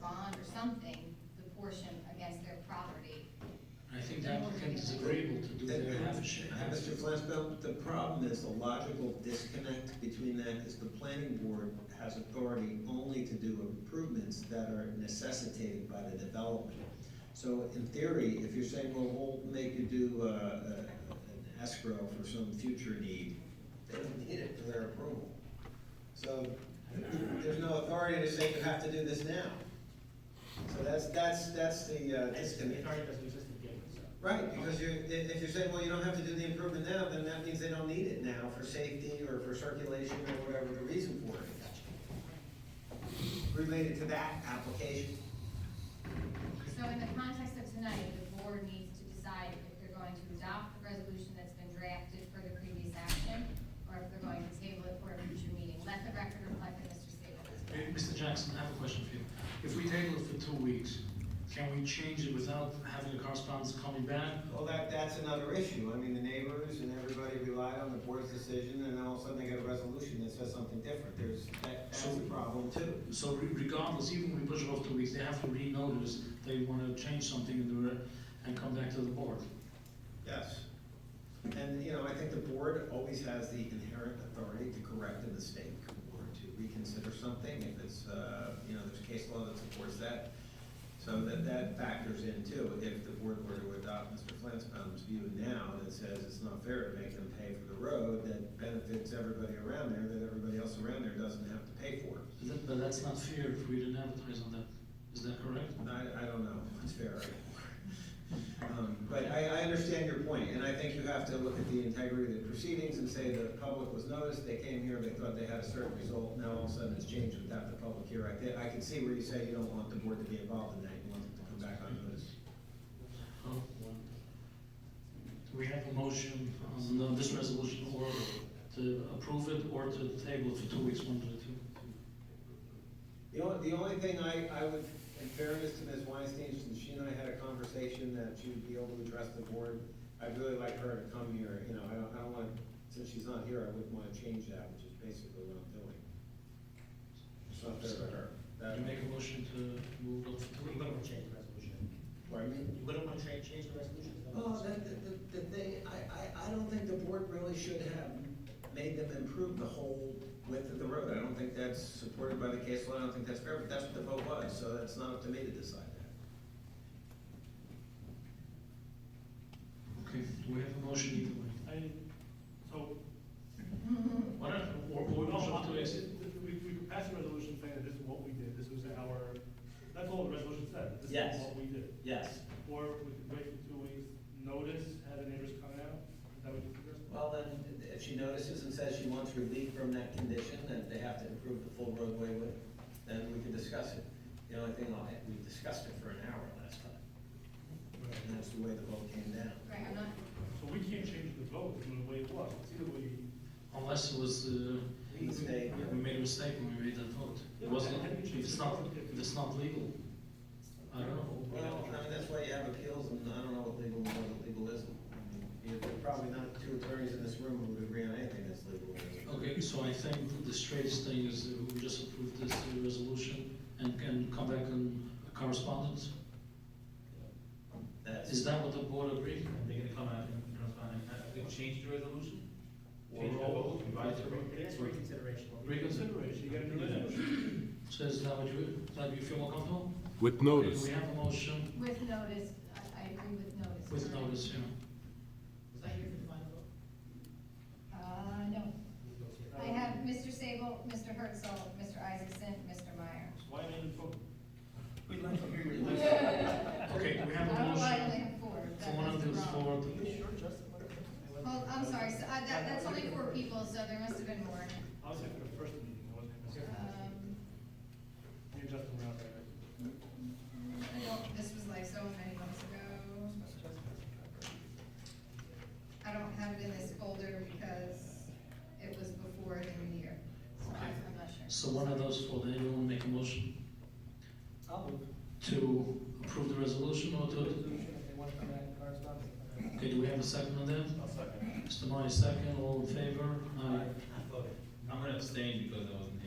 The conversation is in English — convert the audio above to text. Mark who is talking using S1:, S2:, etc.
S1: bond or something, the portion against their property.
S2: I think the applicant is agreeable to do
S3: And-
S2: their
S3: and-
S2: half share.
S3: and Uh, Mr. Flansbrough, the problem is the logical disconnect between that is the planning board has authority only to do improvements that are necessitated by the development. So in theory, if you're saying, well, we'll make you do uh, uh, an escrow for some future need, they don't need it for their approval. So there's no authority to say you have to do this now. So that's, that's, that's the uh, disconnect.
S4: doesn't exist in the game, so.
S3: Right, because you, i- if you're saying, well, you don't have to do the improvement now, then that means they don't need it now for safety or for circulation or whatever the reason for it. is. Related to that application.
S1: So in the context of tonight, the board needs to decide if they're going to adopt the resolution that's been drafted for the previous action, or if they're going to table it for a future meeting. Let the record reflect that Mr. Sable is
S2: Hey,
S1: correct.
S2: Mr. Jackson, I have a question for you. If we table it for two weeks, can we change it without having the correspondence coming back?
S3: Well, that, that's another issue. I mean, the neighbors and everybody relied on the board's decision, and then all of a sudden they get a resolution that says something different. There's, that, that's a problem too.
S2: So re- regardless, even if we push it off two weeks, they have to re-notice they want to change something in the, re- and come back to the board.
S3: Yes. And, you know, I think the board always has the inherent authority to correct a mistake or to reconsider something if it's, uh, you know, there's case law that supports that. So that, that factors in too. If the board were to adopt Mr. Flansbaum's view now that says it's not fair to make them pay for the road that benefits everybody around there, that everybody else around there doesn't have to pay for.
S2: But that- But that's not fair if we didn't advertise on that. Is that correct?
S3: I, I don't know, it's fair. Um, But I, I understand your point, and I think you have to look at the integrity of the proceedings and say the public was noticed, they came here, they thought they had a certain result, now all of a sudden it's changed without the public hearing. I can, I can see where you say you don't want the board to be involved in that, you want them to come back on notice.
S2: Oh, well. Do we have a motion on uh, this resolution or to approve it or to table it for two weeks, one to two?
S3: The only, the only thing I, I would, in fairness to Ms. Weinstein, since she and I had a conversation that she would be able to address the board, I'd really like her to come here, you know, I don't, I don't want, since she's not here, I wouldn't want to change that, which is basically what I'm doing. It's not fair to her.
S2: You
S3: That-
S2: make a motion to move it up for two
S4: You wouldn't want to change the resolution.
S3: Pardon me?
S4: You wouldn't want to change, change the resolution. is that what
S3: Well,
S4: you're
S3: the,
S4: saying?
S3: the, the thing, I, I, I don't think the board really should have made them improve the whole width of the road. I don't think that's supported by the case law, I don't think that's fair, but that's what the vote was, so that's not up to me to decide that.
S2: Okay, do we have a motion either way?
S5: I, so,
S2: Why not, or, or we
S5: no,
S2: also have
S5: I-
S2: to exit?
S5: we, we could pass a resolution saying that this is what we did, this was our, that's all the resolution said, this
S3: Yes.
S5: is what we did.
S3: Yes.
S5: Or we could wait for two weeks, notice, have the neighbors come out, is that what you suggest?
S3: Well, then, if she notices and says she wants relief from that condition, that they have to improve the full roadway width, then we can discuss it. The only thing, I- we discussed it for an hour last time, and that's the way the vote came down.
S1: Right, I'm not,
S5: So we can't change the vote from the way it was, it's either we.
S2: Unless it was, uh, we
S3: Mistake.
S2: we made a mistake when we made that vote. It wasn't, if it's not, if it's not legal, I don't know.
S3: Well, I mean, that's why you have appeals, and I don't know what legal, what legal is. I mean, you- There are probably not two attorneys in this room who would agree on anything that's legal.
S2: Okay, so I think that the straightest thing is that we just approve this uh, resolution and can come back on correspondence? Is
S3: That's,
S2: that what the board agreed?
S6: They're gonna come out and respond, we change the resolution?
S2: Change the vote.
S4: It is reconsideration. what we-
S5: Reconsideration, you got a new resolution.
S2: So is that what you, that you feel more comfortable?
S7: With
S2: Okay,
S7: notice.
S2: We have a motion
S1: with notice, I, I agree with notice.
S2: with notice, yeah.
S4: Was I here for the final vote?
S1: Uh, no. I have Mr. Sable, Mr. Herzl, Mr. Isaacson, Mr. Meyer.
S5: Why not even vote?
S4: We'd like to hear your.
S2: Okay, we
S1: I
S2: have a
S1: don't know why I only
S2: motion
S1: have four. but
S2: for one of
S1: that's
S2: those
S1: wrong.
S2: four.
S4: Are you sure, Justin? What if-
S1: Well, I'm sorry, so, uh, that, that's only four people, so there must have been more.
S5: I was here for the first meeting, I wasn't here for the second.
S1: Um,
S5: Me and Justin were out there.
S1: I don't, this was like so many months ago. I don't have it in this folder because it was before the new year, so I- I'm not sure.
S2: So one of those four, then you want to make a motion?
S4: I'll move.
S2: to approve the resolution or to,
S4: Resolution, if they want to come back and correspond.
S2: okay, do we have a second on that?
S4: I'll second.
S2: Mr. Meyer, second, all in favor? Aye.
S4: I voted.
S6: I'm gonna abstain because I wasn't